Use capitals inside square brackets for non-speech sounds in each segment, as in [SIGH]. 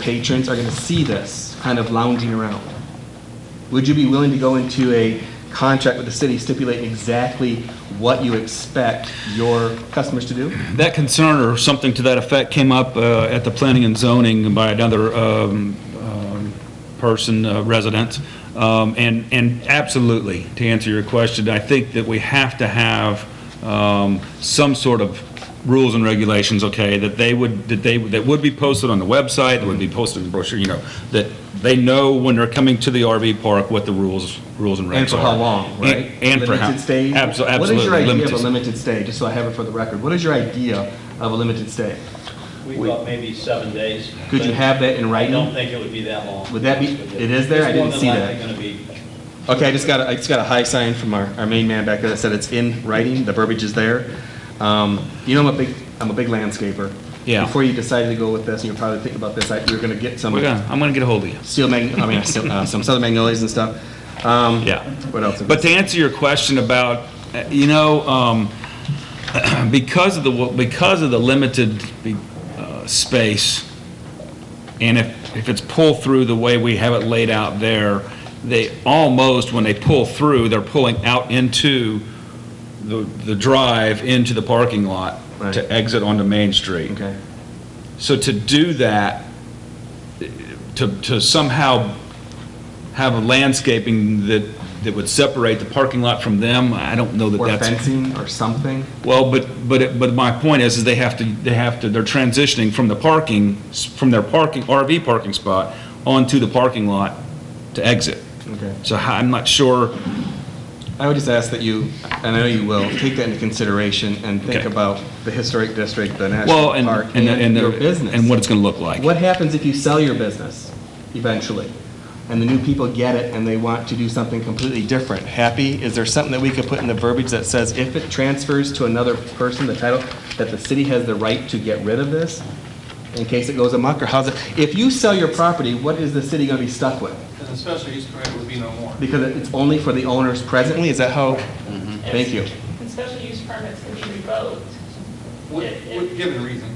patrons are going to see this kind of lounging around. Would you be willing to go into a contract with the city stipulating exactly what you expect your customers to do? That concern or something to that effect came up uh, at the planning and zoning by another um, um, person, uh, resident. Um, And, and absolutely, to answer your question, I think that we have to have um, some sort of rules and regulations, okay, that they would, that they, that would be posted on the website, that would be posted in the brochure, you know, that they know when they're coming to the RV park what the rules, rules and regs are. And for how long, right? And and for how. Limited stay? Abso- Absolutely. What is your idea of a limited- limited stay, just so I have it for the record? What is your idea of a limited stay? We thought maybe seven days. Could you have that in I don't writing? think it would be that long. Would that be- it is there? I didn't see that. It's more than likely going to be Okay, I just got, a- I just got a high sign from our, our main man back there that said it's in writing, the verbiage is there. Um, You know, I'm a big, I'm a big landscaper. Yeah. Before you decided to go with this, and you're probably thinking about this, I- you were gonna get some We're gonna, I'm gonna get a hold of you. steel mag, I mean, steel- uh, some southern magnolias and stuff. Um, Yeah. What else? But to answer your question about, uh, you know, um, [CLEARS THROAT] because of the, because of the limited uh, space, and if, if it's pulled through the way we have it laid out there, they almost, when they pull through, they're pulling out into the, the drive, into the parking lot Right. to exit onto Main Street. Okay. So to do that, to, to somehow have a landscaping that, that would separate the parking lot from them, I don't know that Or that's. fencing or something? Well, but, but, it- but my point is, is they have to, they have to, they're transitioning from the parking, s- from their parking, RV parking spot onto the parking lot to exit. Okay. So how- I'm not sure, I would just ask that you, and I know you will, take that into consideration and think Okay. about the historic district, the national well, and, park, and, and. and your the- business. And what it's gonna look like. What happens if you sell your business eventually? And the new people get it and they want to do something completely different? Happy, is there something that we could put in the verbiage that says if it transfers to another person, the title, that the city has the right to get rid of this? In case it goes amok, or how's it, if you sell your property, what is the city gonna be stuck with? Because a special use permit would be no more. Because it's only for the owners presently, is that how? Thank you. And special use permits can be revoked. With- with- Given reason.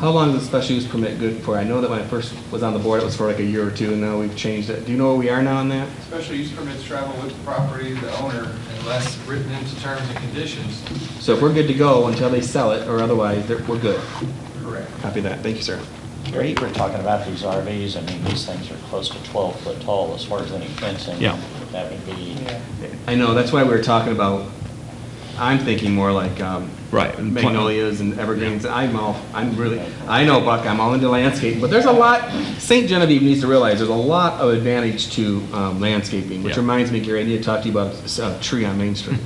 How long is a special use permit good for? I know that when I first was on the board, it was for like a year or two, and now we've changed it. Do you know where we are now on that? Special use permits travel with the property, the owner, unless written into terms and conditions. So if we're good to go until they sell it or otherwise, they're- we're good. Correct. Copy that. Thank you, sir. Gary, you were talking about these RVs, I mean, these things are close to 12 foot tall as far as any fencing. Yeah. That would be, I know, that's why we were talking about, I'm thinking more like um, Right. magnolias and evergreens. I'm all, I'm really, I know, Buck, I'm all into landscaping, but there's a lot, St. Genevieve needs to realize, there's a lot of advantage to um, landscaping, which Yeah. reminds me, Gary, I need to talk to you about this, uh, tree on Main [LAUGHS] Street.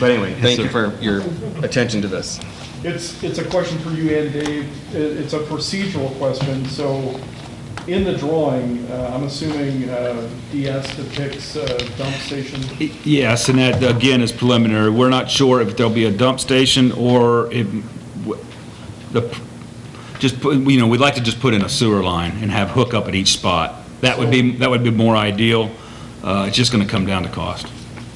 But anyway, thank you for your attention to this. It's, it's a question for you and Dave. It- It's a procedural question. So in the drawing, uh, I'm assuming uh, DS depicts uh, dump station. Yes, and that, again, is preliminary. We're not sure if there'll be a dump station or if, w- the, just, put- you know, we'd like to just put in a sewer line and have hookup at each spot. That would be, that would be more ideal. Uh, It's just going to come down to cost.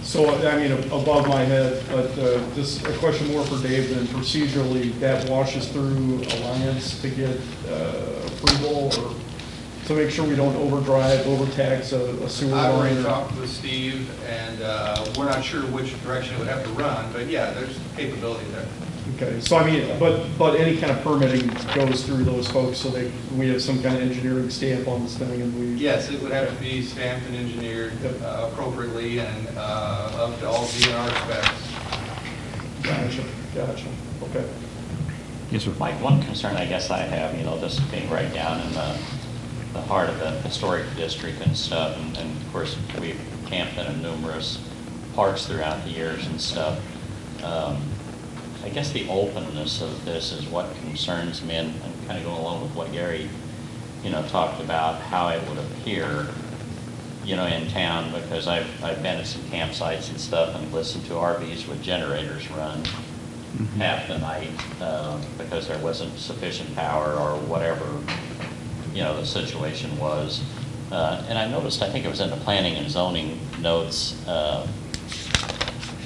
So, I mean, above my head, but uh, this, a question more for Dave than procedurally, that washes through Alliance to get uh, approval or to make sure we don't overdrive, overtax a a sewer I already line? or- talked with Steve, and uh, we're not sure which direction it would have to run, but yeah, there's capability there. Okay, so I mean, but, but any kind of permitting goes through those folks, so they, we have some kind of engineering stamp on this thing and we. Yes, it would have to be stamped and engineered Yep. uh, appropriately and uh, up to all DNR specs. Gotcha, gotcha, okay. Yes, sir. Mike, one concern I guess I have, you know, this being right down in the, the heart of the historic district and stuff, and- and of course, we've camped in numerous parks throughout the years and stuff. Um, I guess the openness of this is what concerns me, and I'm kind of going along with what Gary, you know, talked about, how it would appear you know, in town, because I've, I've been at some campsites and stuff and listened to RVs with generators run half the night, um, because there wasn't sufficient power or whatever, you know, the situation was. Uh, and I noticed, I think it was in the planning and zoning notes, uh,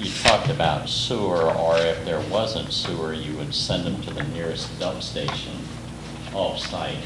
you talked about sewer, or if there wasn't sewer, you would send them to the nearest dump station off-site.